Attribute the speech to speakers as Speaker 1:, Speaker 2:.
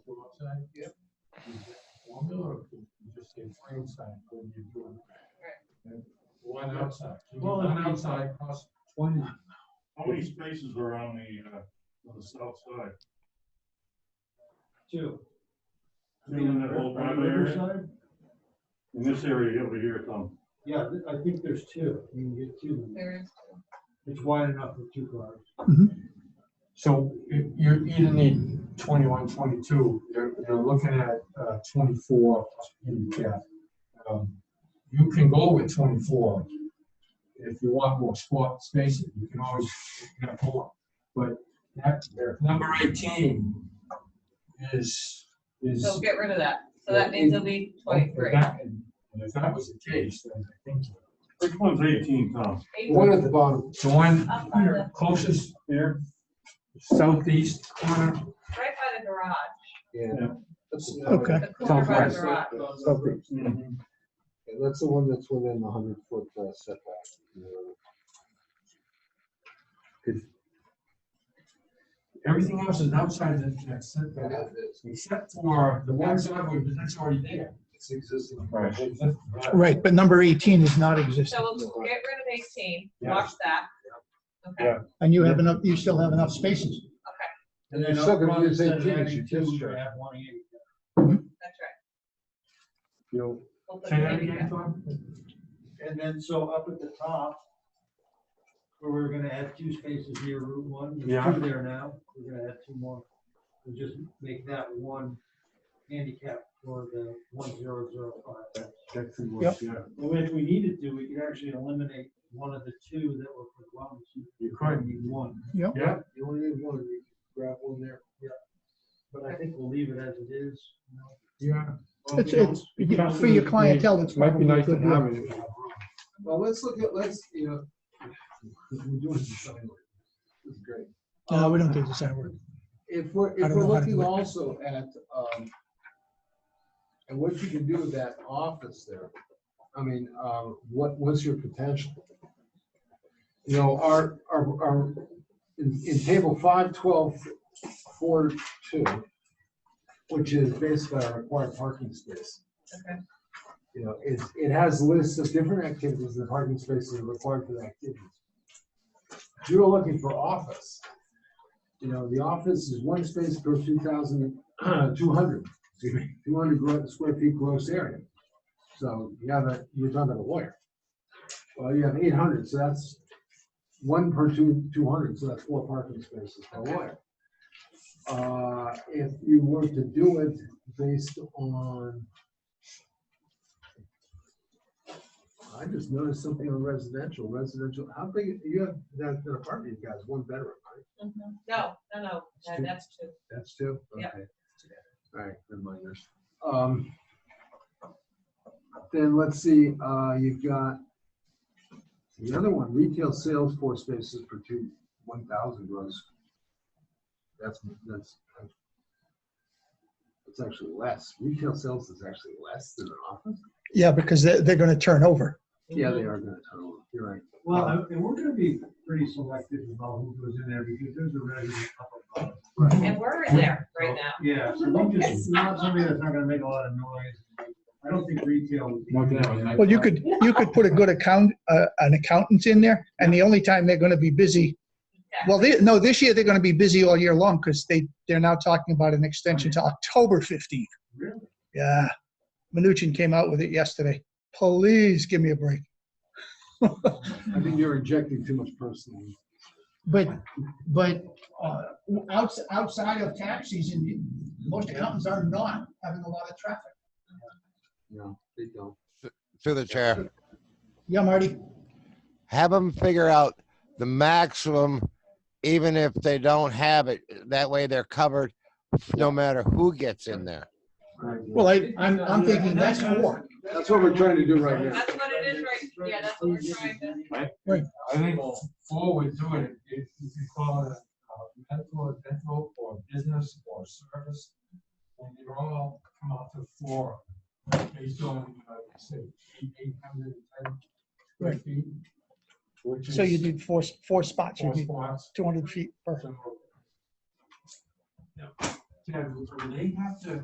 Speaker 1: side? Yep. Formula or you just say frame side when you're doing? it? And One outside.
Speaker 2: Well,
Speaker 1: One
Speaker 2: if we-
Speaker 1: outside costs twenty.
Speaker 3: How many spaces are on the, uh, on the south side?
Speaker 2: Two.
Speaker 3: Two in that whole
Speaker 2: On
Speaker 3: front area?
Speaker 2: Riverside?
Speaker 3: In this area over here, Tom.
Speaker 2: Yeah, th- I think there's two. You can get two.
Speaker 4: There is.
Speaker 2: It's wide enough for two cars.
Speaker 1: So you, you either need 21, 22. twenty-two, you're, you're looking at uh, twenty-four handicap. Um, You can go with twenty-four. If you want more spot spaces, you can always get more. But that, number eighteen is, is.
Speaker 4: So get rid of that. So that means it'll be twenty-three.
Speaker 1: And if that was the case, then I think,
Speaker 3: Which one's eighteen, Tom?
Speaker 1: the one at the bottom, the one
Speaker 4: Up by the-
Speaker 1: closest there, southeast corner.
Speaker 4: Right by the garage,
Speaker 3: Yeah.
Speaker 5: Okay.
Speaker 4: the corner by the garage.
Speaker 5: Okay.
Speaker 3: Mhm.
Speaker 6: Yeah, that's the one that's within the hundred foot uh, setback. you know.
Speaker 1: Everything else is outside of that
Speaker 6: And
Speaker 1: setback,
Speaker 6: that is-
Speaker 1: except for the one driveway, but that's already there.
Speaker 6: It's existing.
Speaker 3: Right.
Speaker 5: Right, but number 18 is not existing.
Speaker 4: So we'll get rid of eighteen, watch that. Okay,
Speaker 3: Yeah.
Speaker 5: And you have enough, you still have enough spaces.
Speaker 1: And
Speaker 6: then up front, instead of having two, you
Speaker 1: have one eight.
Speaker 4: that's right.
Speaker 6: You
Speaker 4: We'll put
Speaker 1: Say
Speaker 4: it
Speaker 1: that
Speaker 4: in
Speaker 1: again,
Speaker 4: again.
Speaker 1: Tom?
Speaker 2: And then so up at the top, where we're gonna add two spaces near Route One,
Speaker 3: Yeah.
Speaker 2: there's two there now, we're gonna add two more. We'll just make that one handicap for the one zero zero five.
Speaker 3: That could work,
Speaker 5: Yep.
Speaker 3: yeah.
Speaker 2: And if we needed to, we could actually eliminate one of the two that were for the wellness.
Speaker 3: You could.
Speaker 2: Need one,
Speaker 3: Yeah,
Speaker 6: you only need one, you grab one there.
Speaker 2: but I think we'll leave it as it is. you know.
Speaker 1: Yeah.
Speaker 5: It's, it's, you know, for your clientele, that's
Speaker 1: Might be
Speaker 5: probably a
Speaker 1: nice to
Speaker 5: good.
Speaker 1: have
Speaker 5: move.
Speaker 1: it.
Speaker 6: Well, let's look at, let's, you know, we're doing design. work. This is great.
Speaker 5: No, uh, we don't do design work.
Speaker 6: If we're,
Speaker 5: I
Speaker 6: if
Speaker 5: don't
Speaker 6: we're
Speaker 5: know how to do
Speaker 6: looking
Speaker 5: it.
Speaker 6: also at, um, and what you can do with that office there, I mean, um, what, what's your potential? You know, our, our, our, in, in table five twelve four two, which is basically our required parking space.
Speaker 4: Okay.
Speaker 6: You know, it, it has lists of different activities and parking spaces are required for the activities. If You're looking for office. You know, the office is one space per two thousand, two hundred, excuse me, two hundred gro- square feet gross area. So you have a, you're talking about a lawyer. Well, you have eight hundred, so that's one per two, two hundred, so that's four parking spaces per lawyer. Uh, if you were to do it based on I just noticed something on residential, residential, how big, you have, that that apartment you got is one bedroom, right?
Speaker 4: Mhm. No, no, no, that- that's two.
Speaker 6: That's two?
Speaker 4: Yeah.
Speaker 6: Okay. All right, then minus. Um, then let's see, uh, you've got the other one, retail sales floor spaces per two, one thousand gross. That's, that's, it's actually less. Retail sales is actually less than an office.
Speaker 5: Yeah, because they're, they're going to turn over.
Speaker 6: Yeah, they are gonna total, you're right.
Speaker 2: Well, and- and we're gonna be pretty selective about who goes in there because there's a resident up above.
Speaker 4: And we're in there
Speaker 1: Oh.
Speaker 4: right now.
Speaker 2: Yeah, so we just, not somebody that's not gonna make a lot of noise. I don't think retail. would be-
Speaker 5: Well, you could, you could put a good account, uh, an accountant in there, and the only time they're going to be busy,
Speaker 4: Yeah.
Speaker 5: well, they, no, this year they're going to be busy all year long because they, they're now talking about an extension to October 15th.
Speaker 2: Really?
Speaker 5: Yeah. Mnuchin came out with it yesterday. Please give me a break.
Speaker 6: I think you're injecting too much personal.
Speaker 5: But, but uh, outs- outside of tax season, you- most accountants are not having a lot of traffic.
Speaker 6: No, they don't.
Speaker 7: through the chair.
Speaker 5: Yeah, Marty?
Speaker 7: Have them figure out the maximum, even if they don't have it. That way they're covered, no matter who gets in there.
Speaker 5: Well, I, I'm, I'm thinking that's four.
Speaker 6: That's what we're trying to do right now.
Speaker 4: That's what it is right, yeah, that's what we're trying to.
Speaker 1: I think forward to it, if you could call it a medical, dental, or business, or service, and they all come out to four, based on, uh, say, eight hundred and ten
Speaker 5: Right.
Speaker 1: feet. which
Speaker 5: So you
Speaker 1: is
Speaker 5: need four, four spots, you
Speaker 1: Four
Speaker 5: need
Speaker 1: spots.
Speaker 5: 200 feet per.
Speaker 1: So- Yeah, do they have to